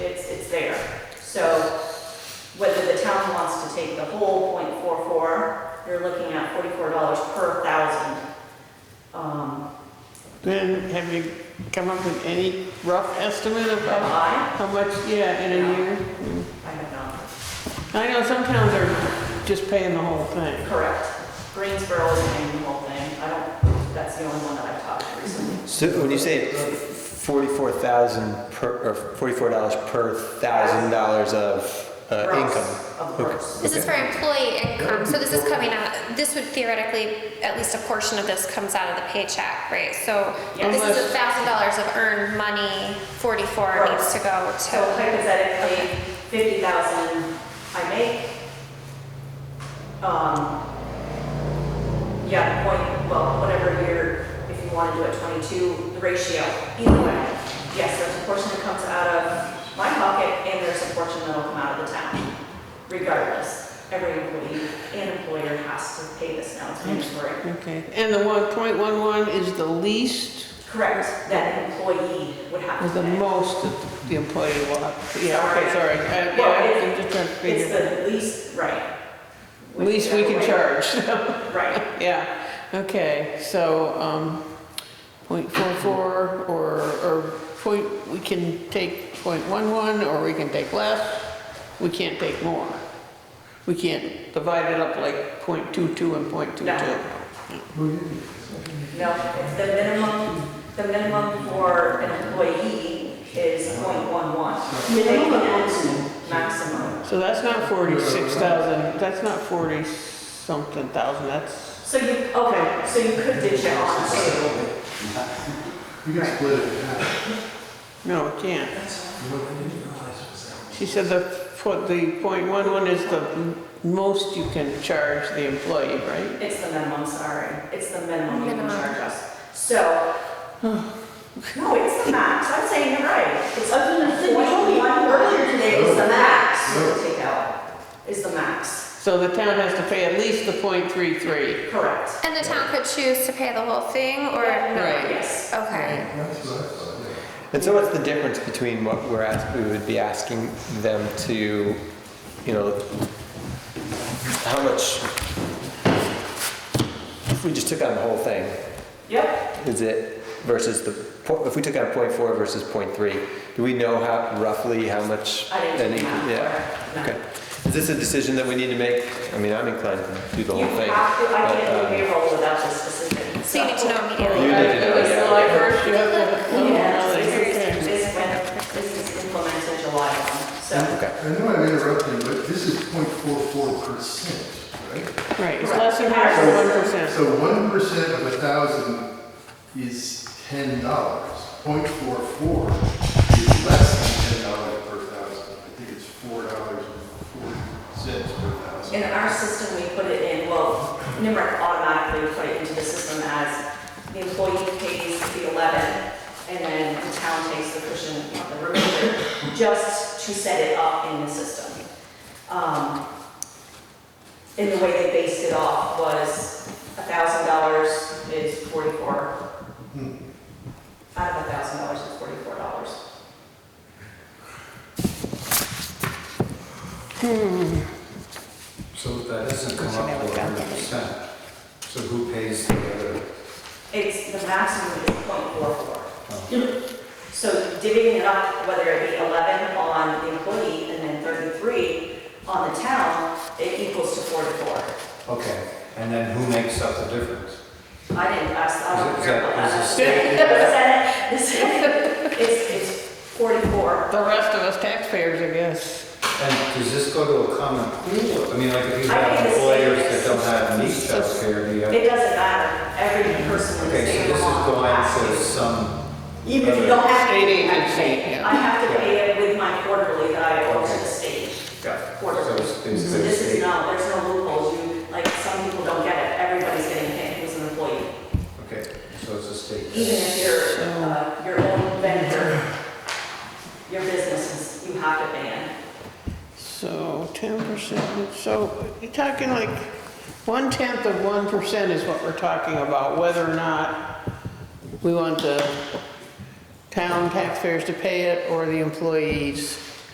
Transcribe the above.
take the whole point four four, you're looking at forty-four dollars per thousand. Um, Then have you come up with any rough estimate of but how I, how much, yeah, in a year? I have not, I know some towns are just paying the whole thing. correct. Greensboro is paying the whole thing, I don't, that's the only one that I've talked to recently. So when you say forty-four thousand per, or forty-four dollars per thousand dollars of uh, Gross, income? Of Okay. course. This is for employee income, so this is coming out, this would theoretically, at least a portion of this comes out of the paycheck, right? So Yes. this is a thousand dollars of earned money, forty-four needs to go So to, hypothetically, fifty thousand I make. Um, yeah, point, well, whatever year, if you wanna do it twenty-two, the ratio, either way. Yes, there's a portion that comes out of my pocket and there's a portion that'll come out of the town, regardless. Every employee and employer has to pay this now, it's mandatory. Okay, and the one point one one is the least, Correct, that an employee would have or to the pay. most that the employee will have? to- Yeah, okay, sorry. I- Well, Yeah, it- I'm just trying to It's figure. the least, right. Least we can Right. charge. Right, Yeah, okay, so, um, point four four or, or point, we can take point one one or we can take less. We can't take more. We can't divide it up like point two two and point two two. No. no, it's the minimum, the minimum for an employee is .11. Minimum maximum? Maximum. So that's not forty-six thousand, that's not forty something thousand, that's, So you, okay, so you could ditch it on to, You can split it in half. no, it can't. She said the, po- the point one one is the m- most you can charge the employee, right? it's the minimum, sorry, it's the minimum you can Minimum. charge us. So, no, it's the max, I'm saying you're right. It's up to the one earlier today, it's the max you can take out, is the max, So the town has to pay at least the point three three. correct. and the town could choose to pay the whole thing, or Right. no? Yes, Okay. That's what I thought, yeah. And so what's the difference between what we're ask, we would be asking them to, you know, how much? If we just took on the whole thing, yep. is it versus the, po- if we took on point four versus point three, do we know how, roughly how much? I didn't any- do that. Yeah. Okay. Is this a decision that we need to make? I mean, I'm inclined to do the You whole thing. have to, I but, can't do um, payroll without this specific. So you need to know You immediately. need to know, It's yeah. like first you have to- Yeah, Okay. this is, this is when, this is implemented July one, so. Okay. I know I'm interrupting, but this is 0.44 percent, right? Right, it's less than half of one percent. So one percent of a thousand is ten dollars. 0.44 is less than ten dollars per thousand. I think it's four dollars and forty cents per thousand. In our system, we put it in, well, NIMRIC automatically put it into the system as the employee pays the eleven, and then the town takes the cushion of the remainder, just to set it up in the system. Um, And the way they based it off was a thousand dollars is forty-four. Hmm. Out of a thousand dollars is forty-four dollars. So that doesn't come up to hundred percent. So who pays the other? It's, the maximum is point four Oh. four. So divvying it up, whether it be eleven on the employee and then thirty-three on the town, it equals to forty-four. Okay, and then who makes up the difference? I didn't, ask. I don't Is it- care about is it- that. is The Senate, it's, it's forty-four. The rest of us taxpayers, I guess. And does this go to a common pool? I mean, like if you I have think it's- employers that don't have neat childcare, do you have? It doesn't matter, every person in the Okay, so state this of is Vermont going has to to. some, Even if you don't have. State to, you have to agency, pay it. yeah. I have to pay it with my quarterly that I owe to the state. yeah, so Quarterly. it's So basically. this is no, there's no loopholes, you, like, some people don't get it, everybody's getting paid who's an employee. Okay, so it's a state. Even if you're, uh, your own vendor, your business, is- you have to pay it. So ten percent, so you're talking like one tenth of one percent is what we're talking about, whether or not we want the town taxpayers to pay it or the employees.